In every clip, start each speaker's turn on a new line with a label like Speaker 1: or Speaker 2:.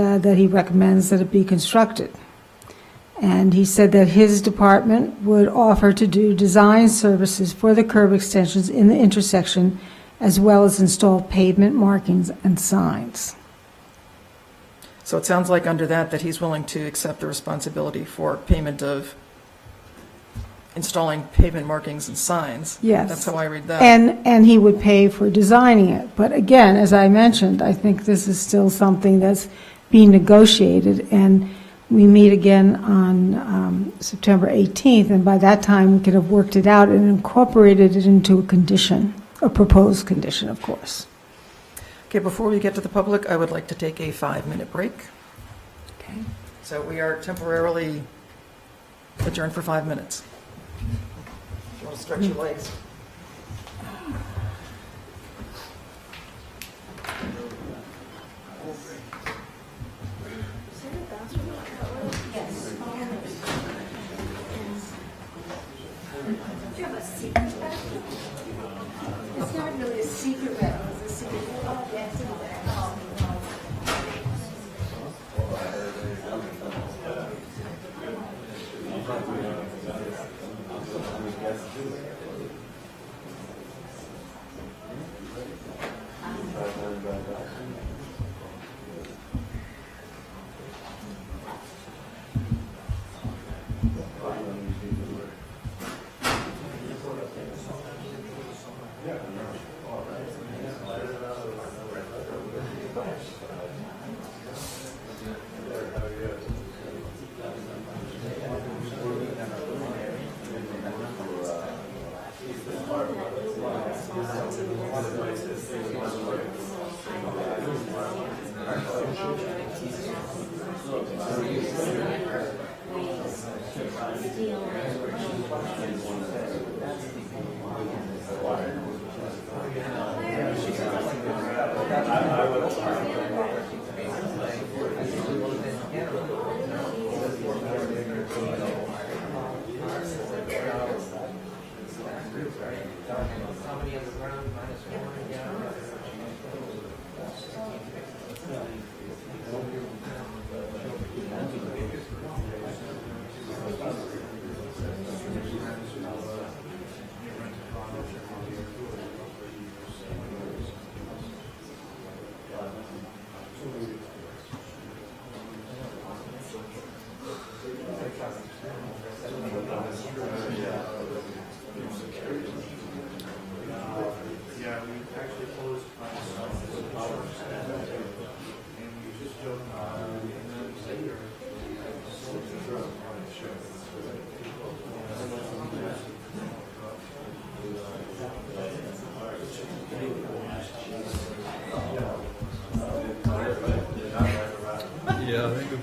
Speaker 1: uh, that he recommends that it be constructed. And he said that his department would offer to do design services for the curb extensions in the intersection, as well as install pavement markings and signs.
Speaker 2: So it sounds like under that, that he's willing to accept the responsibility for payment of installing pavement markings and signs.
Speaker 1: Yes.
Speaker 2: That's how I read that.
Speaker 1: And, and he would pay for designing it. But again, as I mentioned, I think this is still something that's being negotiated, and we meet again on um, September 18th, and by that time, we could have worked it out and incorporated it into a condition, a proposed condition, of course.
Speaker 2: Okay, before we get to the public, I would like to take a five-minute break.
Speaker 1: Okay.
Speaker 2: So we are temporarily adjourned for five minutes. If you want to stretch your legs.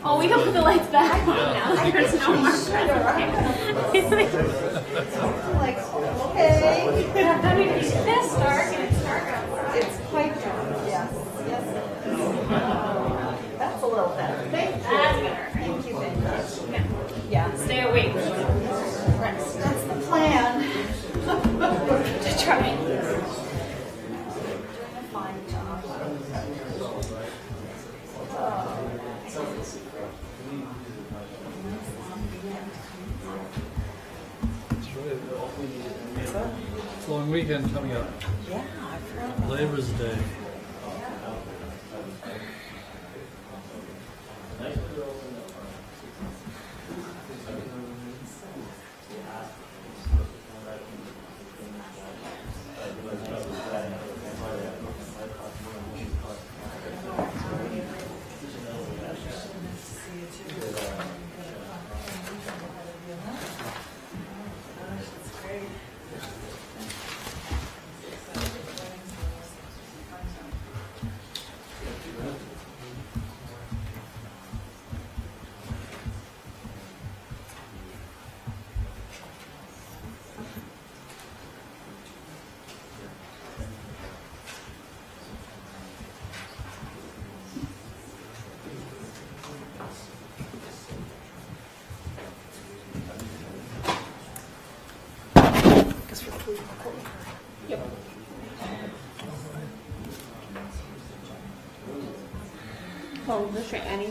Speaker 3: Oh, we don't put the lights back on now. There's no more. Like, okay. I mean, it's this dark and it's dark outside. It's quite dark.
Speaker 4: Yes, yes. That's a little better.
Speaker 3: That's better.
Speaker 4: Thank you, thank you. Yeah,
Speaker 3: Stay awake.
Speaker 4: that's the plan.
Speaker 3: Just try.
Speaker 4: Fine job.
Speaker 5: It's a long weekend coming up.
Speaker 4: Yeah, I forgot.
Speaker 5: Labor's Day.
Speaker 3: Well, just try any